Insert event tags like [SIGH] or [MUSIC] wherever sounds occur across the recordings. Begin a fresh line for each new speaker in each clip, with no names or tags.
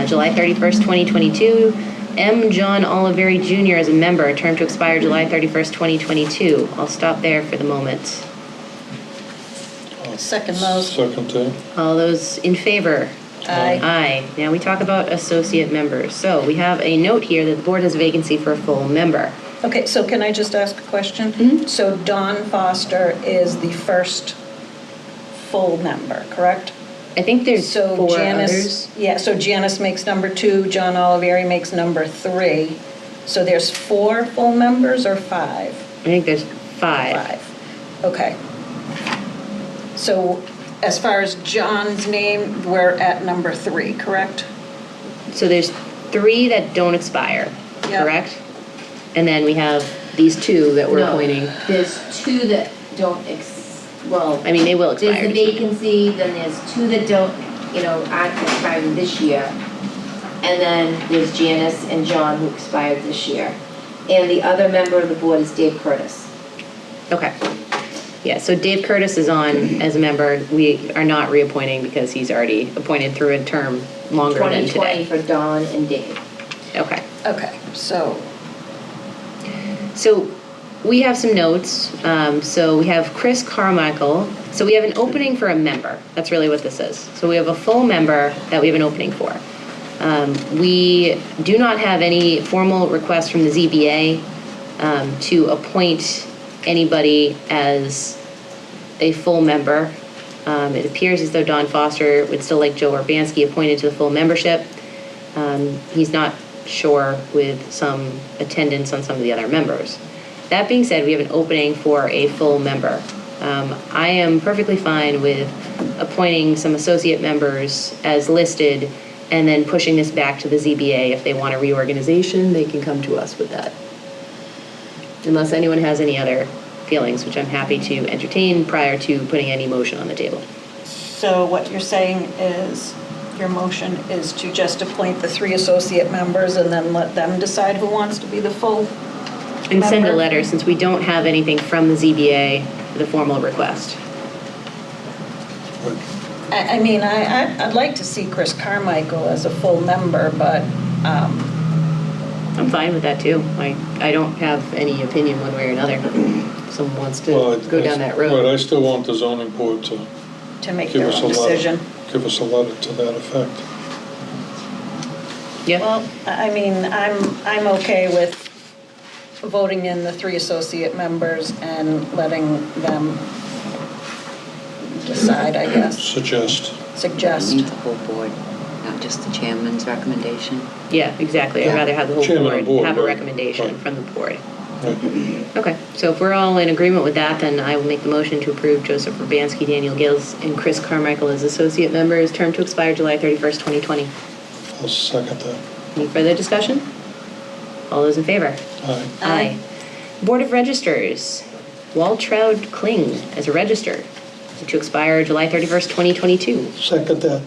Uh, July 31st, 2022. M. John Oliveri Jr. as a member, a term to expire July 31st, 2022. I'll stop there for the moment.
Second those.
Second eh? that.
All those in favor?
Aye.
Aye. Now we talk about associate members. So we have a note here that the board has a vacancy for a full member.
Okay, so can I just ask a question?
Mm-hmm.
So Don Foster is the first full member, correct?
I think there's
So
four
Janice,
others.
yeah, so Janice makes number two, John Oliveri makes number three. So there's four full members or five?
I think there's five.
Five, okay. So as far as John's name, we're at number three, correct?
So there's three that don't expire,
Yeah.
correct? And then we have these two that we're
No,
appointing.
There's two that don't ex, well.
I mean, they will expire.
There's the vacancy, then there's two that don't, you know, aren't expiring this year. And then there's Janice and John who expired this year. And the other member of the board is Dave Curtis.
Okay. Yeah, so Dave Curtis is on as a member. We are not reappointing because he's already appointed through a term longer than today.
2020 for Dawn and Dave.
Okay.
Okay, so
So we have some notes. Um, so we have Chris Carmichael. So we have an opening for a member. That's really what this is. So we have a full member that we have an opening for. Um, we do not have any formal request from the ZBA um, to appoint anybody as a full member. Um, it appears as though Don Foster would still like Joe Urbanski appointed to the full membership. Um, he's not sure with some attendance on some of the other members. That being said, we have an opening for a full member. Um, I am perfectly fine with appointing some associate members as listed and then pushing this back to the ZBA. If they want a reorganization, they can come to us with that. Unless anyone has any other feelings, which I'm happy to entertain prior to putting any motion on the table.
So what you're saying is, your motion is to just appoint the three associate members and then let them decide who wants to be the full?
And send a
Member?
letter, since we don't have anything from the ZBA, the formal request.
I, I mean, I, I- I'd like to see Chris Carmichael as a full member, but, um,
I'm fine with that too. I, I don't have any opinion one way or another. If Someone wants to
Well, I-
go down that
Right, I
road.
still want the zoning board to
to make
give
their
us a
own
letter.
decision.
Give us a letter to that effect.
Yeah,
Well, I I mean, I'm, I'm okay with voting in the three associate members and letting them decide, I guess,
Suggest.
suggest.
Need the whole board, not just the chairman's recommendation.
yeah, exactly. I'd
Yeah.
rather have the whole
Chairman of board,
board have a
right,
recommendation
right.
from the board.
Right.
Okay, so if we're all in agreement with that, then I will make the motion to approve Joseph Urbanski, Daniel Gills, and Chris Carmichael as associate members, term to expire July 31st, 2020.
I'll second that.
Any further discussion? All those in favor?
Aye.
Aye.
Board of Registers, Waltraud Kling as a register, to expire July 31st, 2022.
Second that.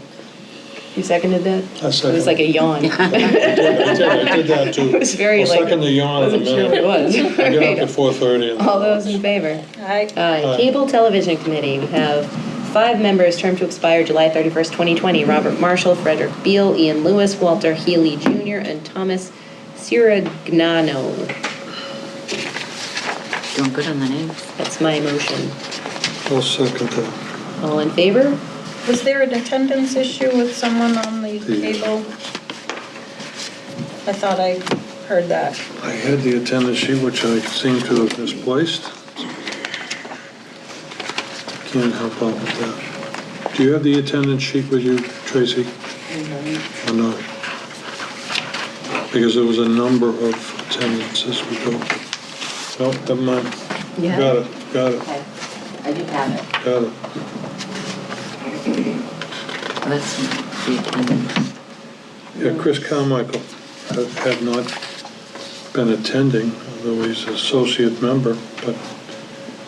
You seconded that?
I
It was
seconded
like a
it. [LAUGHS]
yawn. [LAUGHS]
I did- I did I did that too.
It was very
I'll
like-
second the yawn in a
Wasn't sure what it
minute.
was.
Oh, [LAUGHS] I get up at 4:30 and.
All those in favor?
Aye.
Aye.
Aye.
Cable Television Committee, we have five members, term to expire July 31st, 2020. Robert Marshall, Frederick Beal, Ian Lewis, Walter Healy Jr., and Thomas Siragnano.
Doing good on the names.
That's my motion.
I'll second that.
All in favor?
Was there an attendance issue with someone on the
The-
cable? I thought I heard that.
I had the attendance sheet, which I seem to have misplaced. Can't help out with that. Do you have the attendance sheet with you, Tracy? Or not? Because there was a number of attendances we go. Nope, never mind.
Yeah.
Got it, got it,
Okay, I do have it.
got it.
That's the attendance.
Yeah, Chris Carmichael had had not been attending, although he's associate member, but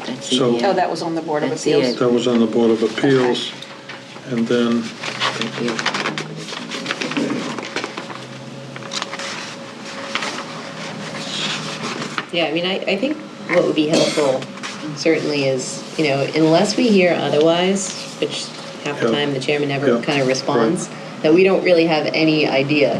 That's
So-
the,
Oh,
uh,
that was on the Board of
That's the-
Appeals.
that was on the Board of Appeals. And then
Yeah, I mean, I, I think what would be helpful certainly is, you know, unless we hear otherwise, which half the
Yeah.
time the chairman never
Yeah.
kind of responds, I that we don't really have any idea